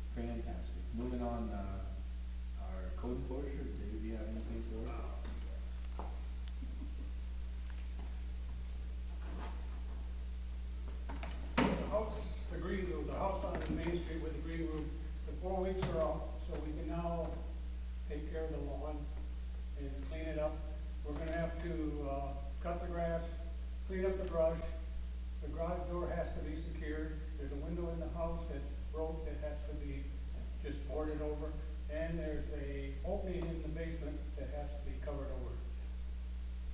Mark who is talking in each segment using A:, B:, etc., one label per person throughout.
A: uh,
B: weeks are out, so we can now take care of the lawn and clean it up. We're gonna have to, uh, cut the grass, clean up the brush. The garage door has to be secured. There's a window in the house that's broke that has to be just boarded over. And there's a opening in the basement that has to be covered over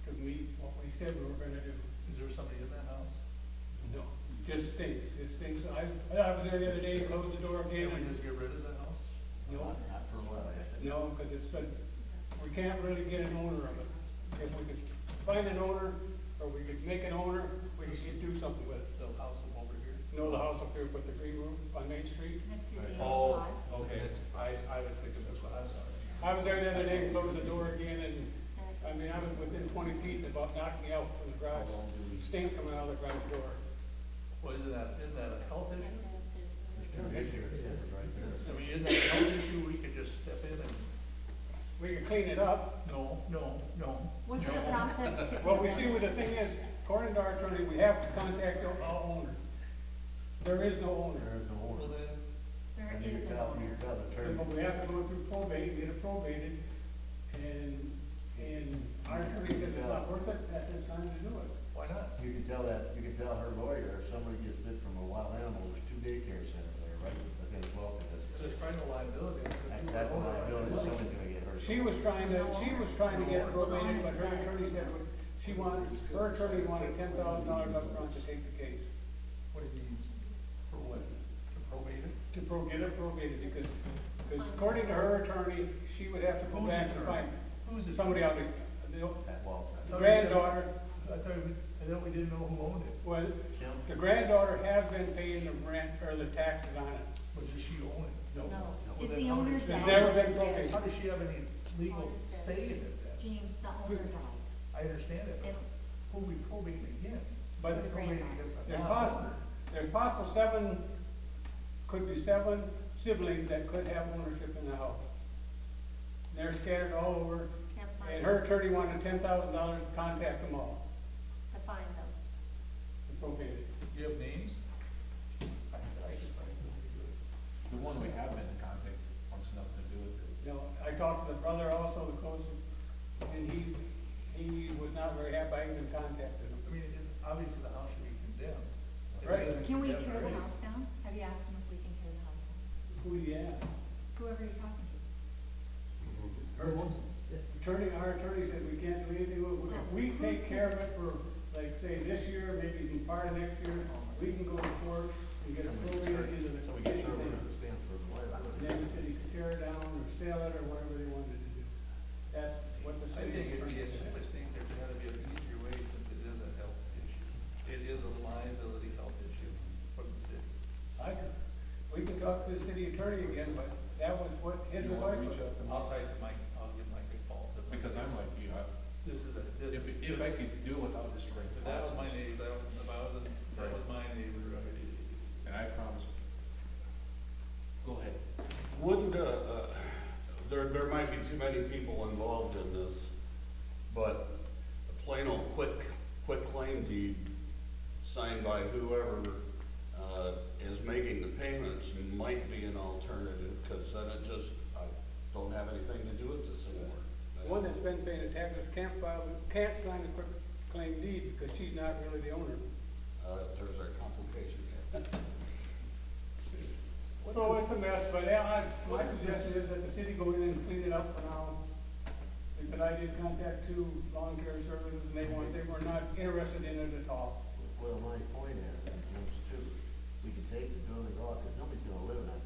B: to meet what we said we were gonna do.
C: Is there somebody in that house?
B: No, just stinks, it stinks. I, I was there the other day, closed the door again,
C: Can we
B: and,
C: just get rid of that house?
B: no,
D: Not for a while, I think.
B: no, because it's, a- we can't really get an owner of it. If we could find an owner, or we could make an owner, we could do something with it.
C: The house over here?
B: You know the house up here with the green roof on Main Street?
E: Next to David
C: Oh,
E: Watts.
C: okay, I, I was thinking that's what, I'm sorry.
B: I was there the other day, closed the door again, and, I mean, I was within twenty feet and about knocked me out from the
D: How
B: garage.
D: long do we,
B: Stink coming out of the garage door.
C: Well, isn't that, isn't that a health issue?
D: Right there,
C: I
D: right there.
C: mean, isn't that a health issue, we could just step in and,
B: We could clean it up,
C: no, no, no.
E: What's the
C: no.
E: process to?
B: Well, we see, what the thing is, according to our attorney, we have to contact the our owner. There is no owner,
D: There is no
C: Well,
D: order.
C: then,
E: There
D: And you
E: is an
D: tell- You
E: owner.
D: tell the attorney.
B: but we have to go through probate, get it probated, and, and our attorney said it's not worth it at this time to do it.
C: why not?
D: You can tell that, you can tell her lawyer, if somebody gets bit from a wild animal, there's two daycare centers there, right? They're gonna welcome
C: Because
D: this.
C: it's kind of liability.
D: That- That's what I know, that somebody's gonna get hurt.
B: She was trying to, she was trying to get it probated, but her attorney said, she wanted, her attorney wanted ten thousand dollars upfront to take the case,
C: What it means, for what, to probate it?
B: to pro, get it probated, because, because according to her attorney, she would have to go back and find
C: Who's it?
B: somebody out there.
D: At Walmart.
B: The granddaughter,
C: I thought, we- I thought we didn't know who owned it,
B: was,
D: Kim?
B: The granddaughter has been paying the rent or the taxes on it.
C: but does she own it?
E: No.
C: Well,
E: Is
C: then
E: the
C: how
E: owner
C: does-
E: dead?
B: It's never been broken.
C: How does she have any legal say in it then?
E: James, the owner died.
C: I understand it, but
E: And-
C: who we probating against?
B: But
C: We're Probating against a
B: there's possible,
C: bond.
B: there's possible seven, could be seven siblings that could have ownership in the house. They're scattered all over,
E: Can't
B: and
E: find
B: her
E: them.
B: attorney wanted ten thousand dollars to contact them all,
E: To find them.
B: to probate it.
C: Do you have names? I- I can find it.
A: The one we have been in contact wants nothing to do with it.
B: You know, I talked to the brother also, the close, and he, he was not very happy I even contacted him.
C: I mean, it- obviously the house should be condemned. If it
B: Right.
C: isn't
E: Can we
C: condemned
E: tear the
C: already,
E: house down? Have you asked them if we can tear the house down?
B: Who he asked?
E: Whoever you're talking to.
B: Her Attorney, our attorney said we can't do anything, with it. if we take care of it for, like, say, this year, maybe even part of next year, we can go to court and get appropriated into
D: So
B: the
D: we
B: city
D: get her
B: thing.
D: to stand for the lawyer.
B: Then the city could tear it down or sell it or whatever they wanted to do. That's what the
C: I
B: city.
C: think it'd
B: attorney
C: be, I
B: said.
C: would think there's gotta be an easier way since it is a health issue. It is a liability health issue from the city.
B: I could, we could talk to the city attorney again, but that was what his
A: You wanna
B: advice
A: reach
B: was.
A: out to Mike?
C: I'll type to Mike, I'll give Mike a call. but-
A: Because I'm like you, I,
C: This is a, this.
A: if, if I could do without this right
C: But that
A: now,
C: was my neighbor, that was, that was, that was my neighbor, I-
A: and I promise. Go ahead.
F: Wouldn't, uh, uh, there, there might be too many people involved in this, but a plain old quick, quick claim deed signed by whoever, uh, is making the payments might be an alternative, cause then it just, I don't have anything to do with this anymore.
B: One that's been paying the taxes can't file, can't sign the quick claim deed because she's not really the owner.
F: Uh, there's a complication here.
B: So it's a mess, but yeah, I, my suggestion is that the city go in and clean it up for now. Because I did contact two lawn care services and they weren't, they were not interested in it at all.
D: Well, my point is, is, too, we can take the building off, because nobody's gonna live in that
C: uh,
D: uh,